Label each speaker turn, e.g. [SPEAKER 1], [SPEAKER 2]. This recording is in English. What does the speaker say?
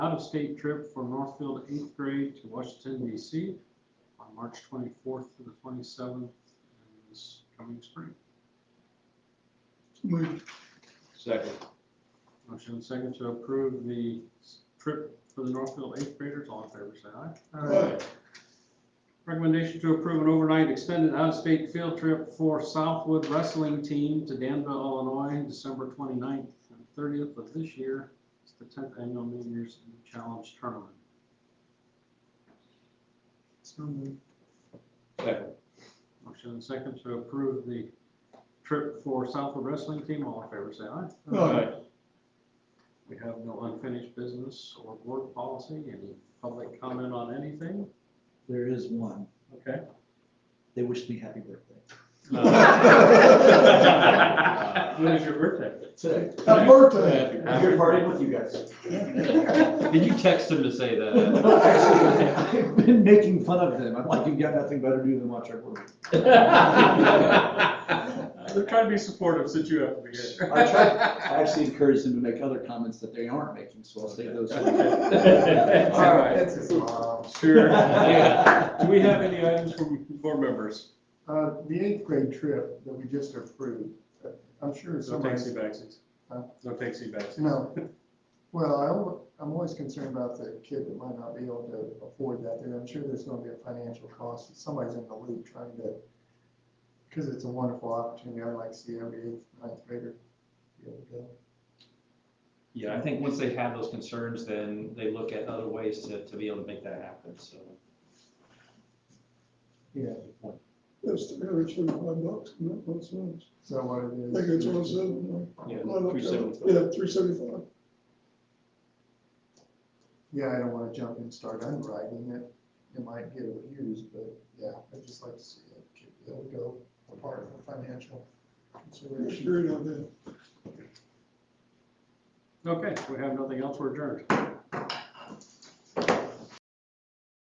[SPEAKER 1] out-of-state trip for Northfield eighth grade to Washington DC on March twenty-fourth to the twenty-seventh this coming spring.
[SPEAKER 2] Move.
[SPEAKER 3] Second.
[SPEAKER 1] Motion second to approve the s- trip for the Northfield eighth graders. All in favor, say aye. Recommendation to approve an overnight extended out-of-state field trip for Southwood Wrestling Team to Danville, Illinois, December 29th and thirtieth of this year. It's the tenth annual New Year's Eve Challenge Tournament.
[SPEAKER 2] So move.
[SPEAKER 3] Second.
[SPEAKER 1] Motion and second to approve the trip for Southwood Wrestling Team. All in favor, say aye. We have no unfinished business or board policy. Any public comment on anything?
[SPEAKER 4] There is one.
[SPEAKER 1] Okay.
[SPEAKER 4] They wished me happy birthday.
[SPEAKER 1] When is your birthday?
[SPEAKER 4] Today.
[SPEAKER 2] Happy birthday.
[SPEAKER 5] I'm here partying with you guys.
[SPEAKER 3] Did you text him to say
[SPEAKER 4] Actually, I've been making fun of them. I'm like, you've got nothing better to do than watch our work.
[SPEAKER 1] They're trying to be supportive since you have to be here.
[SPEAKER 4] I tried- I actually encouraged them to make other comments that they aren't making, so I'll save those.
[SPEAKER 1] All right,
[SPEAKER 2] That's his mom.
[SPEAKER 1] sure. Do we have any items from board members?
[SPEAKER 2] Uh, the eighth grade trip that we just approved, uh, I'm sure
[SPEAKER 1] No
[SPEAKER 2] somebody.
[SPEAKER 1] taxi backsies.
[SPEAKER 2] Huh?
[SPEAKER 1] No taxi backsies.
[SPEAKER 2] No. Well, I, al- I'm always concerned about the kid that might not be able to afford that, and I'm sure there's gonna be a financial cost, somebody's in the loop trying to, because it's a wonderful opportunity, I'd like to see every eighth, ninth grader be able to go.
[SPEAKER 3] Yeah, I think once they have those concerns, then they look at other ways to, to be able to make that happen, so.
[SPEAKER 2] Yeah,
[SPEAKER 6] That's the average thirty-five bucks, and that makes sense.
[SPEAKER 2] is that what it
[SPEAKER 6] I
[SPEAKER 2] is?
[SPEAKER 6] think it's one seven.
[SPEAKER 3] Yeah,
[SPEAKER 6] I looked at it.
[SPEAKER 3] 375.
[SPEAKER 6] Yeah, three seventy-five.
[SPEAKER 2] Yeah, I don't wanna jump and start underwriting it, it might get abused, but yeah, I'd just like to see a kid be able to go apart from financial
[SPEAKER 6] I
[SPEAKER 2] consideration.
[SPEAKER 6] agree on that.
[SPEAKER 1] Okay, we have nothing else, we're adjourned.